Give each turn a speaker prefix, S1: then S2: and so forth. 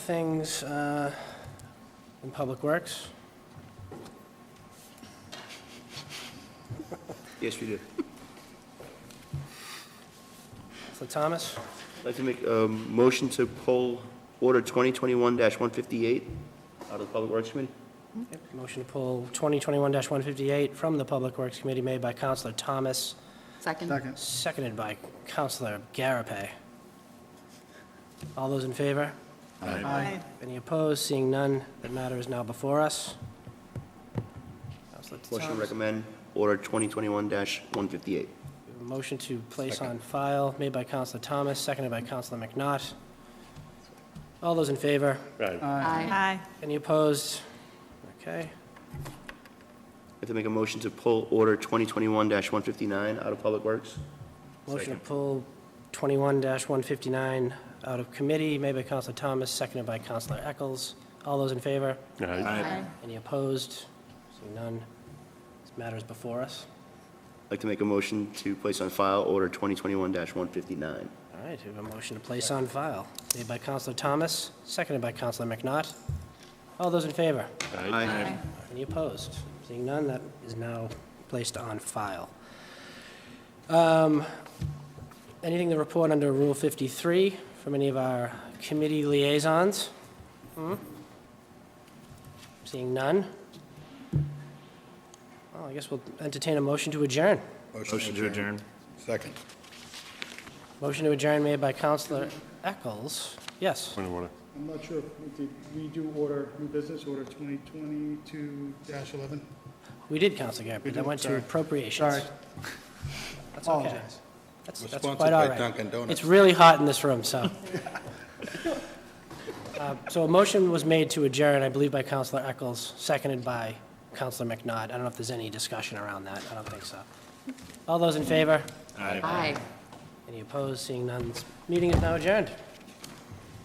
S1: Things uh, in Public Works.
S2: Yes, we do.
S1: So Thomas,
S2: I'd like to make a motion to pull Order 2021-158 out of the Public Works Committee.
S1: motion to pull 2021-158 from the Public Works Committee made by Counselor Thomas,
S3: Second.
S4: Second.
S1: seconded by Counselor Garapay. All those in favor?
S4: Aye.
S1: Any opposed? Seeing none, that matter is now before us. Counselor
S2: Motion to
S1: Thomas.
S2: recommend Order 2021-158.
S1: Motion to place on file made by Counselor Thomas, seconded by Counselor McNaught. All those in favor?
S4: Aye.
S3: Aye.
S1: Any opposed? Okay.
S2: I'd like to make a motion to pull Order 2021-159 out of Public Works.
S1: Motion to pull 21-159 out of committee, made by Counselor Thomas, seconded by Counselor Eccles. All those in favor?
S4: Aye.
S1: Any opposed? Seeing none, this matter is before us.
S2: I'd like to make a motion to place on file Order 2021-159.
S1: All right, we have a motion to place on file, made by Counselor Thomas, seconded by Counselor McNaught. All those in favor?
S2: Aye.
S1: Any opposed? Seeing none, that is now placed on file. Um, Anything to report under Rule 53 from any of our committee liaisons? Hmm? Seeing none? Well, I guess we'll entertain a motion to adjourn.
S5: Motion to adjourn.
S6: Second.
S1: Motion to adjourn made by Counselor Eccles. Yes.
S5: Point of order.
S4: I'm not sure, if we did we do order, new business order 2022-11?
S1: We did, Counselor Garrett, but
S4: We
S1: that
S4: did,
S1: went to
S4: sorry.
S1: appropriations.
S4: Sorry.
S1: That's okay.
S4: Apologize.
S1: That's
S6: We're
S1: that's
S6: sponsored
S1: quite all
S6: by
S1: right.
S6: Dunkin' Donuts.
S1: It's really hot in this room, so. Uh, So a motion was made to adjourn, I believe by Counselor Eccles, seconded by Counselor McNaught. I don't know if there's any discussion around that. I don't think so. All those in favor?
S5: Aye.
S3: Aye.
S1: Any opposed? Seeing none, this meeting is now adjourned.